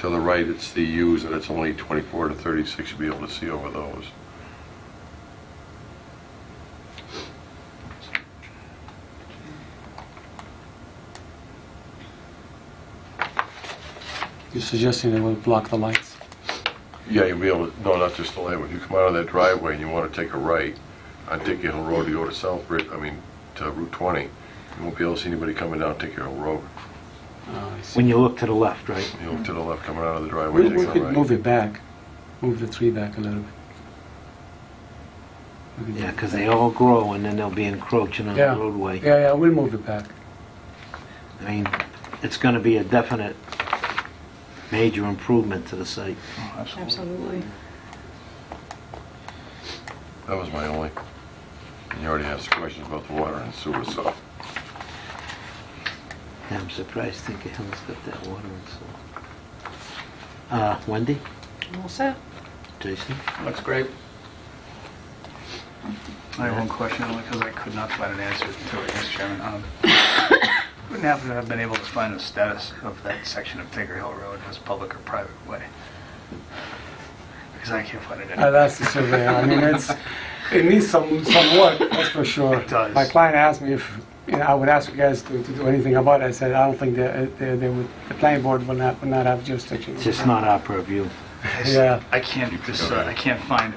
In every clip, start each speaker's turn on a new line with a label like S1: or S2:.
S1: To the right, it's the U's, and it's only 24 to 36, you'll be able to see over those.
S2: You're suggesting they would block the lights?
S1: Yeah, you'll be able, to no, not just the land, when you come out of that driveway and you want to take a right on Dickey Hill Road to go to Southbridge, I mean, to Route 20, you won't be able to see anybody coming down Dickey Hill Road.
S3: Ah,
S2: Oh, I see.
S3: When you look to the left, right?
S1: You know, to the left, coming out of the driveway,
S2: We
S1: taking
S2: we
S1: a
S2: could
S1: right.
S2: move it back, move the tree back a little bit. We could-
S3: Yeah, because they all grow and then they'll be encroaching on the
S2: Yeah.
S3: roadway.
S2: Yeah, yeah, we'll move it back.
S3: I mean, it's going to be a definite major improvement to the site.
S4: Absolutely.
S1: That was my only, and you already asked questions about the water and sewer, so.
S3: Yeah, I'm surprised Tinker Hill's got that water and so. Uh, Wendy?
S4: All set?
S3: Jason?
S5: Looks great. I have one question, only because I could not find an answer to it, Mr. Chairman. Um, Wouldn't happen to have been able to find the status of that section of Tigger Hill Road as public or private way? Because I can't find it
S2: Uh,
S5: anywhere.
S2: That's the surveyor, I mean, it's, it needs some, some work, that's for sure.
S5: It does.
S2: My client asked me if, you know, I would ask you guys to, to do anything about it, I said, I don't think that, they, they would, the planning board will not, will not have jurisdiction.
S3: It's just not our purview.
S5: I s-
S2: yeah.
S5: I can't, decide- I can't find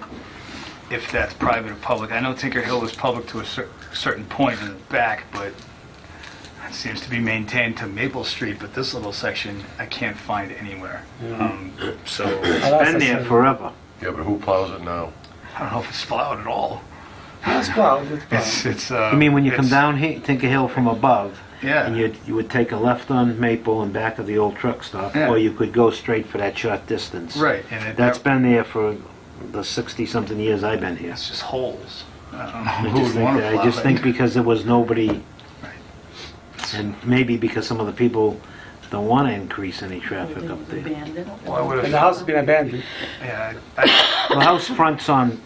S5: if that's private or public. I know Tinker Hill was public to a cer- certain point in the back, but it seems to be maintained to Maple Street, but this little section, I can't find anywhere. Um, So, I
S2: That's
S3: Been
S2: the
S3: there
S2: surveyor.
S3: forever.
S1: Yeah, but who plows it now?
S5: don't know if it's plowed at all.
S2: It's plowed, it's plowed.
S5: It's, it's, uh...
S3: I mean, when you come
S5: it's-
S3: down here, Tinker Hill from above,
S5: Yeah.
S3: and you, you would take a left on Maple and back of the old truck stop,
S5: Yeah.
S3: or you could go straight for that short distance.
S5: Right, and it...
S3: That's been there for the 60-something years I've been here.
S5: It's just holes. I don't know
S3: I
S5: who
S3: just
S5: would
S3: think,
S5: want to
S3: that-
S5: plow
S3: I just
S5: it.
S3: think because there was nobody,
S5: Right.
S3: and maybe because some of the people don't want to increase any traffic up there.
S4: Abandoned.
S5: Well, I
S2: And
S5: would've...
S2: the house has been abandoned.
S5: Yeah, I-
S3: The house fronts on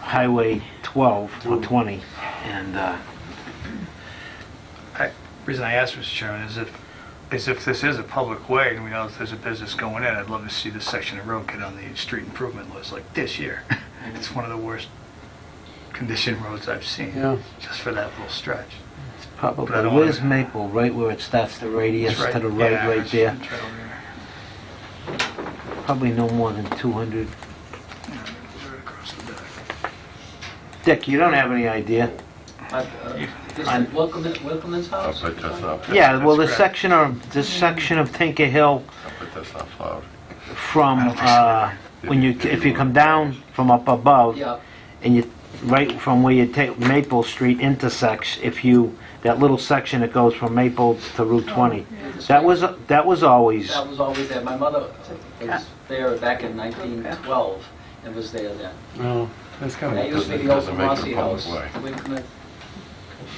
S3: Highway 12 or 20, and uh,
S5: I- I- reason I asked, Mr. Chairman, is if, is if this is a public way and we know that there's a business going in, I'd love to see this section of road get on the street improvement list like this year. It's one of the worst conditioned roads I've
S2: Yeah.
S5: seen, just for that little stretch.
S3: it's
S5: But I
S3: probably,
S5: don't wanna-
S3: where's Maple? Right where it starts the radius
S5: It's right-
S3: to the right,
S5: yeah,
S3: right
S5: it's-
S3: there?
S5: it's right over there.
S3: Probably no more than 200.
S5: Right across the back.
S3: Dick, you don't have any idea?
S6: But, uh, This is
S3: I'm-
S6: Wilkman- Wilkman's
S1: I
S6: house?
S1: bet that's not, I
S3: Yeah, well,
S5: that's
S3: this
S5: correct.
S3: section of, this section of Tinker Hill
S1: bet that's not plowed.
S3: from, uh, when you, if you come down from up above,
S6: Yeah,
S3: and you, right from where you take Maple Street intersects, if you, that little section that goes from Maple to Route 20, that was, that was always,
S6: that was always there. My mother was there back in 1912 and was there then.
S3: Oh.
S2: No, that's kind
S6: That
S2: of,
S6: used to be the old
S1: Doesn't- doesn't make
S6: Kamasi
S1: it a public
S6: house.
S1: way.
S6: the Winkman,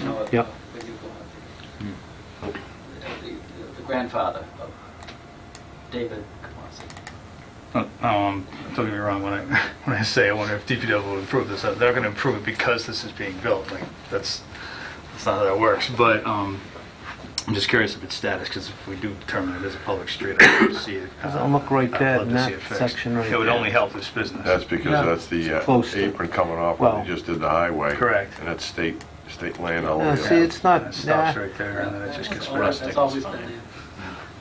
S6: you know, uh,
S3: Yep.
S6: when you go out there. Uh, the- The grandfather of David Kamasi.
S5: Um, don't get me wrong, when I, when I say I wonder if DPW will improve this, uh, they're not gonna improve it because this is being built, like, that's, that's not how that works, but, um, I'm just curious of its status, because if we do determine it as a public street, I'd love to see it. uh,
S3: Doesn't look right
S5: I'd
S3: there
S5: love
S3: in
S5: to
S3: that
S5: see it fixed.
S3: section right
S5: It would
S3: there.
S5: only help this business.
S1: That's because
S2: Yeah.
S1: that's the uh,
S3: Close to-
S1: apron coming off when
S3: Well-
S1: they just did the highway.
S5: Correct.
S1: And that's state, state land all
S3: Yeah,
S1: over
S3: see,
S1: there.
S3: it's
S5: And
S3: not,
S5: it
S3: nah.
S5: stops right there, and then it just gets
S6: That's always-
S5: rustic.
S6: That's always
S5: It's
S6: been
S5: fine.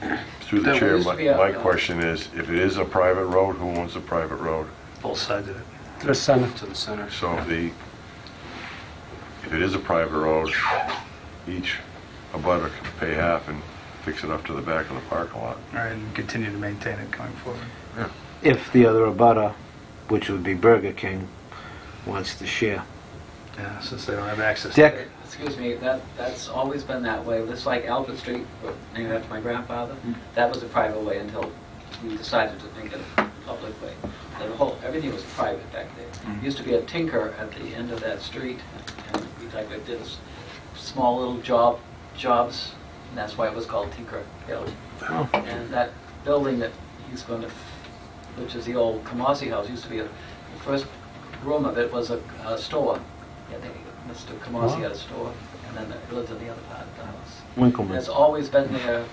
S6: there.
S1: Through the
S5: That
S1: chair,
S6: used to
S1: my,
S6: be a-
S1: my question is, if it is a private road, who owns the private road?
S5: Both sides of it.
S2: the center.
S1: So if the, if it is a private road, each abutter can pay half and fix it up to the back of the parking lot.
S5: All right, and continue to maintain it going forward.
S3: if the other abutter, which would be Burger King, wants to share.
S5: Yeah, since they don't have access to
S3: Dick,
S5: it.
S6: Excuse me, that, that's always been that way. It's like Albert Street, named after my grandfather. That was a private way until we decided to make it a public way. The whole, everything was private back there. Used to be a tinker at the end of that street, and we like I did s- small little job, jobs, and that's why it was called Tinker Hill.
S3: Oh.
S6: And that building that he's going to, which is the old Kamasi House, used to be, a- the first room of it was a a store. Yeah, they- Mr. Kamasi had a store, and then it lived in the other part of the house.
S3: Winkleman.
S6: It's always been there,